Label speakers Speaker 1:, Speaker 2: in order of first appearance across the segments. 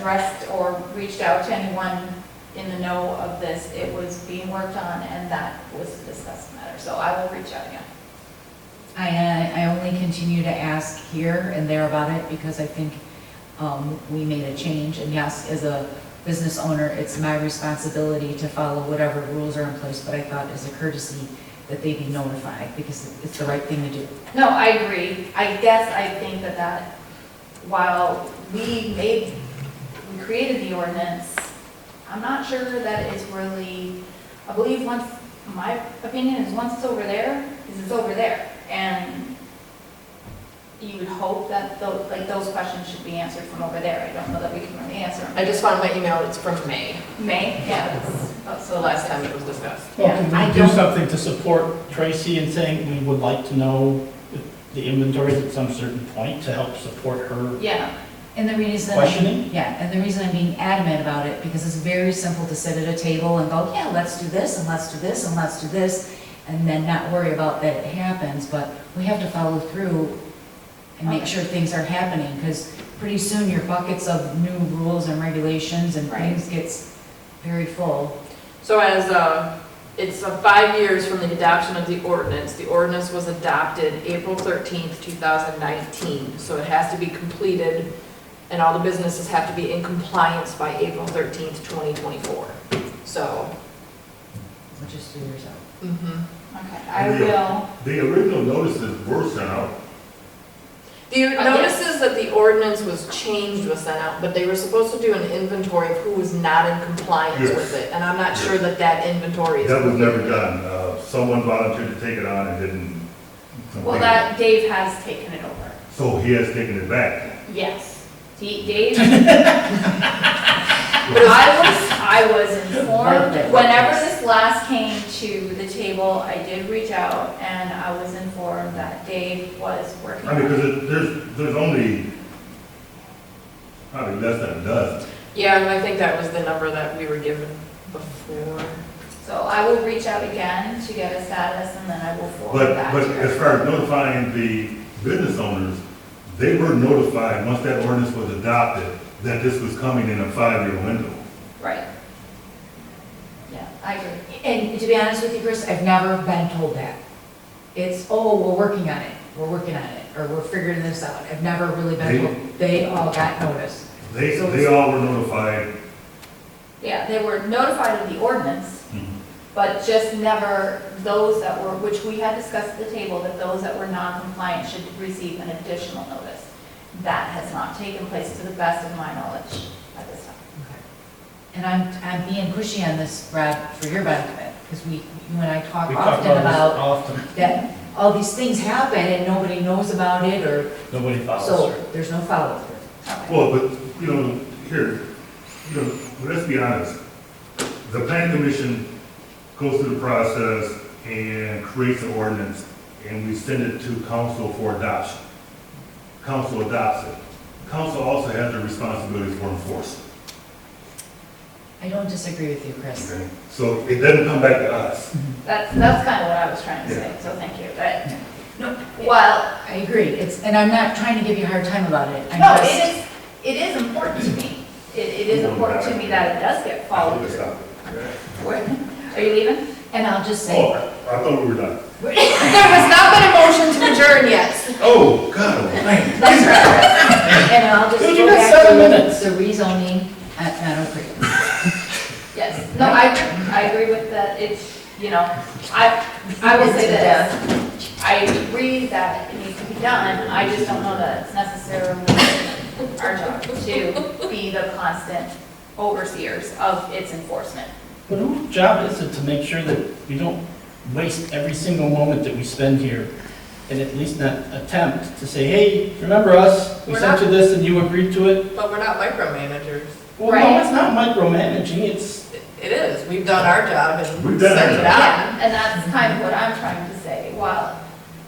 Speaker 1: addressed or reached out to anyone in the know of this. It was being worked on, and that was the discussed matter, so I will reach out again.
Speaker 2: I, uh, I only continue to ask here and there about it because I think um, we made a change. And yes, as a business owner, it's my responsibility to follow whatever rules are in place, but I thought as a courtesy that they be notified because it's the right thing to do.
Speaker 1: No, I agree. I guess I think that that, while we made, we created the ordinance, I'm not sure that it's really, I believe once, my opinion is once it's over there, is it's over there. And you would hope that, tho- like, those questions should be answered from over there. I don't know that we can really answer
Speaker 3: I
Speaker 1: them.
Speaker 3: just found my email, it's from May,
Speaker 1: May, yeah, Oh, that's, that's
Speaker 3: the last time it was discussed.
Speaker 4: Well,
Speaker 2: I
Speaker 4: can we do
Speaker 2: don't-
Speaker 4: something to support Tracy in saying we would like to know if the inventories at some certain point to help support her
Speaker 1: Yeah,
Speaker 2: And the reason.
Speaker 4: Questioning?
Speaker 2: Yeah, and the reason I'm being adamant about it, because it's very simple to sit at a table and go, yeah, let's do this, and let's do this, and let's do this, and then not worry about that it happens, but we have to follow through and make
Speaker 1: Okay.
Speaker 2: sure things are happening, because pretty soon your buckets of new rules and regulations and
Speaker 1: Right.
Speaker 2: things gets very full.
Speaker 3: So as, uh, it's uh, five years from the adoption of the ordinance. The ordinance was adopted April 13th, 2019, so it has to be completed, and all the businesses have to be in compliance by April 13th, 2024. So,
Speaker 2: So just do yours out.
Speaker 3: mhm.
Speaker 1: okay, I will,
Speaker 5: The original notices were sent out.
Speaker 3: the
Speaker 1: Uh,
Speaker 3: notices that the ordinance was changed was sent out, but they were supposed to do an inventory of who was not in compliance
Speaker 5: Yes.
Speaker 3: with it, and I'm not sure that that inventory is.
Speaker 5: That was never done. Uh, Someone volunteered to take it on and didn't.
Speaker 1: well, that, Dave has taken it over.
Speaker 5: So he has taken it back.
Speaker 1: Yes. D- Dave? I was, I was informed, whenever this last came to the table, I did reach out and I was informed that Dave was working
Speaker 5: I
Speaker 1: on
Speaker 5: mean,
Speaker 1: it.
Speaker 5: because there's, there's only probably less than a dozen.
Speaker 3: Yeah, and I think that was the number that we were given before.
Speaker 1: So I will reach out again to get a status and then I will forward
Speaker 5: But,
Speaker 1: that
Speaker 5: but
Speaker 1: to her.
Speaker 5: as far as notifying the business owners, they were notified, once that ordinance was adopted, that this was coming in a five-year window.
Speaker 1: Right. Yeah, I agree.
Speaker 2: And to be honest with you, Chris, I've never been told that. It's, oh, we're working on it, we're working on it, or we're figuring this out. I've never really been
Speaker 5: They-
Speaker 2: told, they all got notice.
Speaker 5: They,
Speaker 2: So
Speaker 5: they all were notified.
Speaker 1: Yeah, they were notified of the ordinance,
Speaker 5: Mhm.
Speaker 1: but just never those that were, which we had discussed at the table, that those that were non-compliant should receive an additional notice. That has not taken place to the best of my knowledge at this time.
Speaker 2: And I'm, I'm being pushy on this, Brad, for your benefit, because we, you and I talk
Speaker 4: We talk
Speaker 2: often about
Speaker 4: about this often,
Speaker 2: that all these things happen and nobody knows about it, or,
Speaker 4: nobody follows her.
Speaker 2: so there's no follow-through.
Speaker 1: Okay.
Speaker 5: Well, but, you know, here, you know, let's be honest. The planning commission goes through the process and creates an ordinance, and we send it to council for adoption. Council adopts it. Council also has the responsibility for enforcement.
Speaker 2: I don't disagree with you, Chris.
Speaker 5: okay? So it doesn't come back to us.
Speaker 1: That's, that's kind of what I was trying to say, so thank you. But, well,
Speaker 2: I agree, it's, and I'm not trying to give you a hard time about it. I'm
Speaker 1: no,
Speaker 2: just-
Speaker 1: it is, it is important to me. It, it is important to me that it does get
Speaker 5: I'll
Speaker 1: followed.
Speaker 5: stop
Speaker 1: Are you leaving?
Speaker 2: And I'll just
Speaker 5: Oh,
Speaker 2: say,
Speaker 5: I thought we were done.
Speaker 3: There has not been a motion to adjourn yet.
Speaker 5: Oh, God, man.
Speaker 2: that's right. And I'll just
Speaker 4: Dude,
Speaker 2: go
Speaker 4: you got
Speaker 2: back to
Speaker 4: seven minutes.
Speaker 2: the rezoning, I, I don't agree.
Speaker 1: Yes, no, I, I agree with that, it's, you know, I, I will say
Speaker 2: It's a
Speaker 1: this. I agree that it needs to be done, I just don't know that it's necessarily our job to be the constant overseers of its enforcement.
Speaker 4: But whose job is it to make sure that we don't waste every single moment that we spend here? And at least not attempt to say, hey, remember us? We
Speaker 3: We're
Speaker 4: sent
Speaker 3: not-
Speaker 4: you this and you agreed to it?
Speaker 3: But we're not micromanagers.
Speaker 4: Well, no,
Speaker 1: Right.
Speaker 4: it's not micromanaging, it's
Speaker 3: It is, we've done our job and
Speaker 5: We've done our
Speaker 3: sent it
Speaker 5: job.
Speaker 3: out.
Speaker 1: Yeah, and that's kind of what I'm trying to say, while,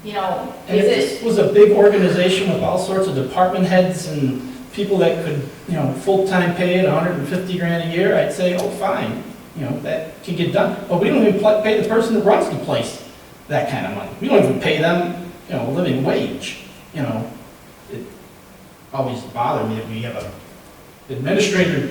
Speaker 1: you know,
Speaker 4: And if
Speaker 1: is
Speaker 4: this
Speaker 1: it,
Speaker 4: was a big organization with all sorts of department heads and people that could, you know, full-time pay at hundred and fifty grand a year, I'd say, oh, fine, you know, that can get done. But we don't even pl- pay the person that runs the place that kind of money. We don't even pay them, you know, a living wage, you know. It always bothered me that we have a administrator